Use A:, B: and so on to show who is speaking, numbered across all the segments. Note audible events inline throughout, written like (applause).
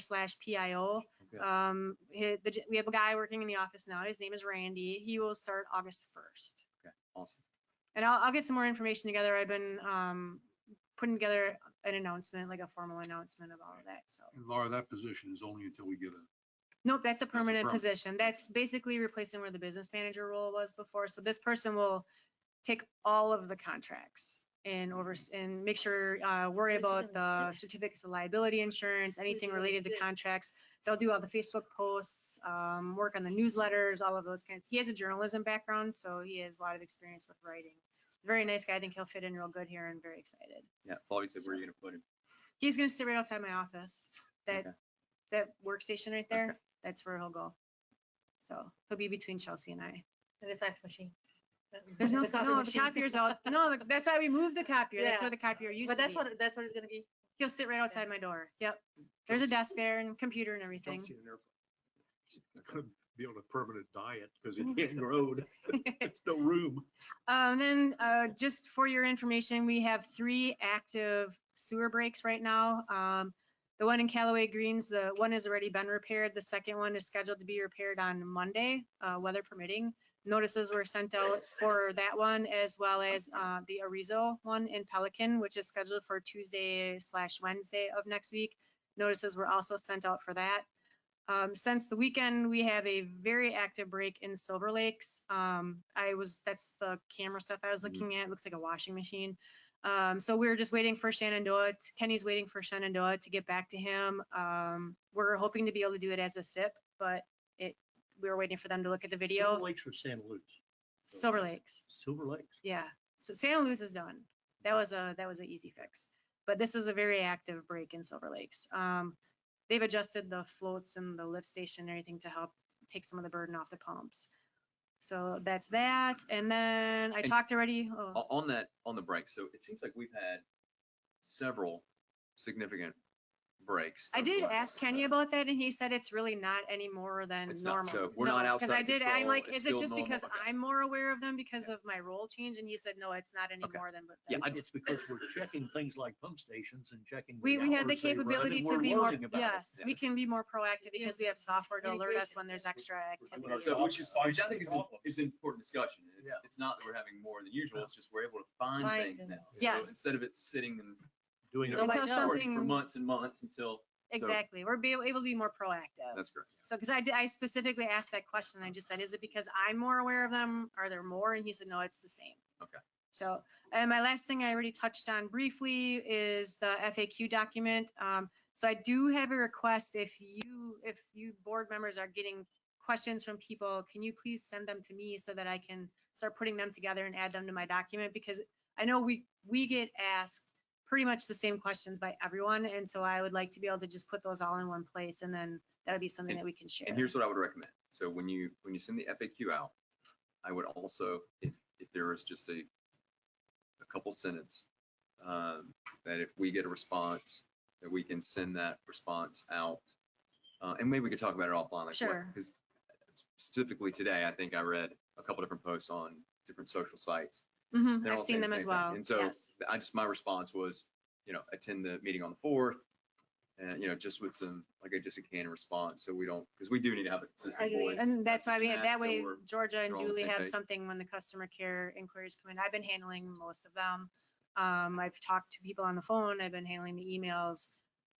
A: slash PIO.
B: Okay.
A: Um, he- the, we have a guy working in the office now. His name is Randy. He will start August first.
B: Okay, awesome.
A: And I'll, I'll get some more information together. I've been, um, putting together an announcement, like a formal announcement of all of that, so.
C: And Laura, that position is only until we get a,
A: Nope, that's a permanent
C: permanent.
A: position. That's basically replacing where the business manager role was before. So this person will take all of the contracts and over, and make sure, uh, worry
D: Who's
A: about
D: Mm-hmm. gonna
A: the certificates of liability insurance, anything
D: gonna
A: related to
D: sit?
A: contracts. They'll do all the Facebook posts, um, work on the newsletters, all of those kinds. He has a journalism background, so he has a lot of experience with writing. Very nice guy. I think he'll fit in real good here and very excited.
B: Yeah, Flavi said, where are you gonna put him?
A: He's gonna sit right outside my office. That
B: Okay.
A: that workstation right there, that's where he'll go. So he'll be between Chelsea and I.
D: And the fax machine.
A: There's no,
D: The copy
A: no, the
D: (laughs) machine.
A: copier's out. No, the- that's why we moved the copier. That's
D: Yeah.
A: where the copier used to
D: But that's
A: be.
D: what, that's what it's gonna be.
A: He'll sit right outside my door. Yep. There's a desk there and computer and everything.
E: Chelsea and Airplane. I couldn't be on a permanent diet because
A: Mm-hmm.
E: it
A: (laughs)
E: can't road. It's no room.
A: Um, then, uh, just for your information, we have three active sewer breaks right now. Um, the one in Callaway Greens, the one has already been repaired. The second one is scheduled to be repaired on Monday, uh, weather permitting. Notices were sent out for that one as well as, uh, the Arizo one in Pelican, which is scheduled for Tuesday slash Wednesday of next week. Notices were also sent out for that. Um, since the weekend, we have a very active break in Silver Lakes. Um, I was, that's the camera stuff I was
B: Mhm.
A: looking at. It looks like a washing machine. Um, so we're just waiting for Shenandoah. t- Kenny's waiting for Shenandoah to get back to him. Um, we're hoping to be able to do it as a SIP, but it, we were waiting for them to look at the
E: Silver
A: video.
E: Lakes or Santa Luz?
A: Silver Lakes,
E: Silver Lakes.
A: yeah. So Santa Luz is done. That was a, that was an easy fix. But this is a very active break in Silver Lakes. Um, they've adjusted the floats and the lift station and everything to help take some of the burden off the pumps. So that's that. And then I
B: And-
A: talked already, oh,
B: O- On that, on the break, so it seems like we've had several significant breaks.
A: I
B: of
A: did
B: work.
A: ask Kenny about that and he said it's really not any more than
B: It's not-
A: normal.
B: so we're not
A: No, 'cause I
B: outside
A: did, I'm
B: control,
A: like,
B: it's
A: is it
B: still
A: just
B: normal,
A: because
B: okay.
A: I'm more aware of them because
B: Yeah.
A: of my role change? And he said, no, it's not any
B: Okay.
A: more than. what-
B: Yeah, I
E: It's because we're checking things like pump stations and checking.
A: We, we have the
E: hours they run,
A: capability
E: and
A: to
E: we're
A: be more,
E: learning about it.
A: yes, we can be more proactive because we have software to alert us
D: Communication.
A: when there's extra activity.
E: our
B: So,
E: job
B: which is, which I think is, an- is an important discussion. It's,
E: Yeah.
B: it's not that we're having more than usual, it's just we're able to find
D: Find
B: things now.
D: them.
B: So
A: Yes.
B: Instead of it sitting and,
E: Doing
B: you
E: it.
B: know,
A: Until
B: like, stored for
A: something-
B: months and months until,
A: Exactly, we're be able to be more proactive.
B: that's correct.
A: So, because I did, I specifically asked that question, I just said, is it because I'm more aware of them? Are there more? And he said, no, it's the same.
B: Okay.
A: So, and my last thing I already touched on briefly is the FAQ document. Um, so I do have a request, if you, if you board members are getting questions from people, can you please send them to me so that I can start putting them together and add them to my document? Because I know we, we get asked pretty much the same questions by everyone, and so I would like to be able to just put those all in one place, and then that would be something that we can share.
B: And here's what I would recommend. So when you, when you send the FAQ out, I would also, if, if there is just a, a couple sentence, um, that if we get a response, that we can send that response out. Uh, and maybe we could talk about it offline. like what-
A: Sure.
B: Cause specifically today, I think I read a couple different posts on different social sites.
A: Mhm,
B: they're
A: I've
B: all saying
A: seen
B: the
A: them
B: same
A: as
B: thing.
A: well,
B: And so
A: yes.
B: I just, my response was, you know, attend the meeting on the fourth. And, you know, just with some, like I just can response, so we don't, because we do need to have a consistent
D: agree.
B: voice.
A: And that's why we,
B: and
A: that
B: so
A: way
B: we're-
A: Georgia and
B: we're all on the
A: Julie
B: same
A: have
B: page.
A: something when the customer care inquiries come in. I've been handling most of them. Um, I've talked to people on the phone, I've been handling the emails,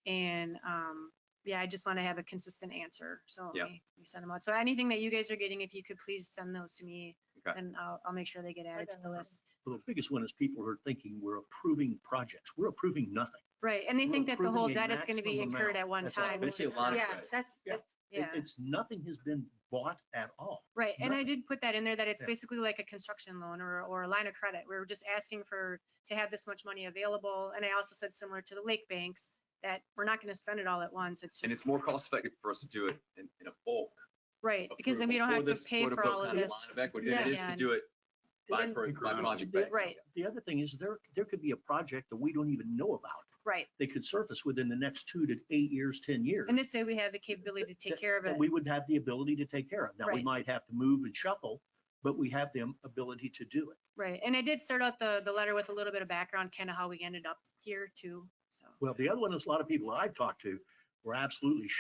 A: and, um, yeah, I just want to have a consistent answer, so
B: Yeah.
A: we we send them out. So anything that you guys are getting, if you could please send those to me,
B: Okay.
A: and I'll, I'll make sure they get added to
D: got
A: the
D: it.
A: list.
E: Well, the biggest one is people are thinking we're approving projects. We're approving nothing.
A: Right, and they
E: We're
A: think that the whole
E: approving a
A: debt is gonna be
E: maximum
A: incurred
E: amount.
A: at one
E: That's all.
A: time.
B: I
A: which
B: see a
A: it's
B: lot
A: not.
B: of
D: Yeah,
B: credit.
D: that's,
E: Yeah.
D: that's-
E: It-
A: Yeah,
E: It's, nothing has been bought at all.
A: right, and I
E: nothing.
A: did put that in there, that it's
E: Yeah.
A: basically like a construction loan or, or a line of credit. We're just asking for, to have this much money available, and I also said similar to the lake banks, that we're not gonna spend it all at once, it's
B: And it's
A: just,
B: more cost effective for us to do it in, in a bulk.
A: right, because then we
B: approval
A: don't have
B: for
A: to
B: this
A: pay
B: quote,
A: for
B: unquote,
A: all of
B: kind
A: this.
B: Line of equity than it is
A: Yeah.
B: to do it by,
D: then-
B: pro- by
C: Incremental.
B: project
E: The-
B: basis.
A: Right.
E: The other thing is there, there could be a project that we don't even know about.
A: Right,
E: They could surface within the next two to eight years, 10 years.
A: and this way we have the capability to take
E: that-
A: care of it,
E: That we would have the ability to take care of. Now, we
A: Right.
E: might have to move and shuffle, but we have the ability to do it.
A: right, and I did start out the, the letter with a little bit of background, kinda how we ended up here too, so.
E: Well, the other one is a lot of people I've talked to we're absolutely